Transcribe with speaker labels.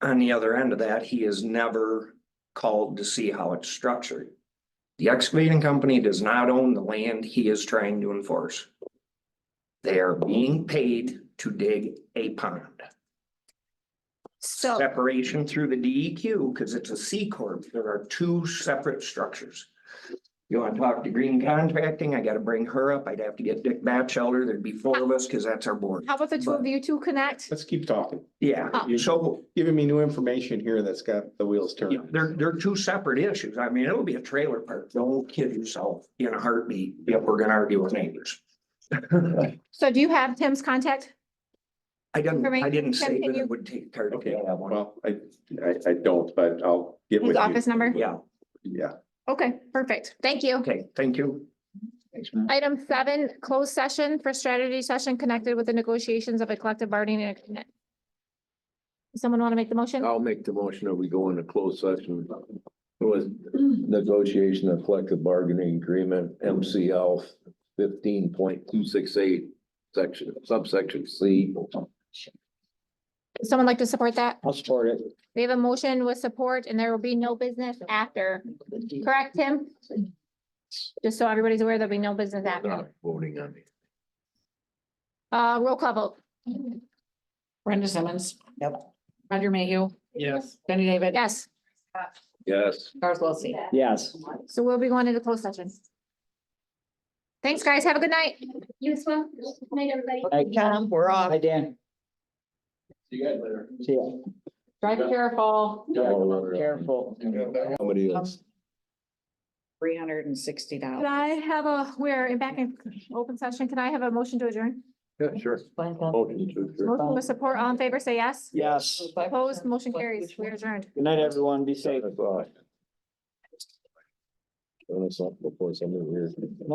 Speaker 1: on the other end of that, he is never called to see how it's structured. The excavating company does not own the land he is trying to enforce. They are being paid to dig a pond.
Speaker 2: So,
Speaker 1: Separation through the DEQ, because it's a C corp, there are two separate structures. You wanna talk to Green Contracting, I gotta bring her up, I'd have to get Dick Batchelder, there'd be four of us, because that's our board.
Speaker 2: how about the two of you two connect?
Speaker 3: Let's keep talking.
Speaker 1: Yeah,
Speaker 3: You're
Speaker 1: so
Speaker 3: giving me new information here that's got the wheels
Speaker 1: Yeah,
Speaker 3: turning.
Speaker 1: they're, they're two separate issues. I mean, it'll be a trailer park. Don't kid yourself in a heartbeat if we're gonna argue with neighbors.
Speaker 2: So do you have Tim's contact?
Speaker 1: I didn't, I didn't say
Speaker 2: Can
Speaker 1: that
Speaker 2: you-
Speaker 1: it would take care of
Speaker 3: Okay,
Speaker 1: that one.
Speaker 3: Well, I, I, I don't, but I'll get
Speaker 2: His
Speaker 3: with you.
Speaker 2: office number?
Speaker 1: Yeah,
Speaker 3: Yeah.
Speaker 2: Okay, perfect. Thank you.
Speaker 1: okay, thank you.
Speaker 2: Item seven, closed session for strategy session connected with the negotiations of a collective bargaining agreement. Someone want to make the motion?
Speaker 4: I'll make the motion that we go into closed session with negotiation of collective bargaining agreement, MCL fifteen point two six eight, section, subsection C.
Speaker 2: Someone like to support that?
Speaker 3: I'll support it.
Speaker 2: We have a motion with support and there will be no business after. Correct, Tim? Just so everybody's aware, there'll be no business after.
Speaker 4: Not voting on it.
Speaker 2: Uh, roll call vote.
Speaker 5: Brenda Simmons.
Speaker 1: Yep.
Speaker 5: Roger Mayhew.
Speaker 1: Yes.
Speaker 5: Jenny David.
Speaker 2: Yes,
Speaker 4: Yes.
Speaker 5: Charles Wilsey.
Speaker 3: Yes.
Speaker 2: so we'll be going into closed session. Thanks, guys. Have a good night. You as well. Good night, everybody.
Speaker 6: Hey, Tom, we're off. Hi, Dan.
Speaker 4: See you guys later.
Speaker 6: See ya.
Speaker 5: Drive careful.
Speaker 6: Careful.
Speaker 4: Somebody else.
Speaker 5: Three hundred and sixty
Speaker 2: Can
Speaker 5: dollars.
Speaker 2: I have a, we're in back in open session. Can I have a motion to adjourn?
Speaker 4: Yeah, sure. Motion to adjourn.
Speaker 2: Motion with support. All in favor, say yes.
Speaker 6: Yes.
Speaker 2: Opposed, motion carries. We are adjourned.
Speaker 6: Good night, everyone. Be safe.
Speaker 4: That's all. Doing something before somebody hears me.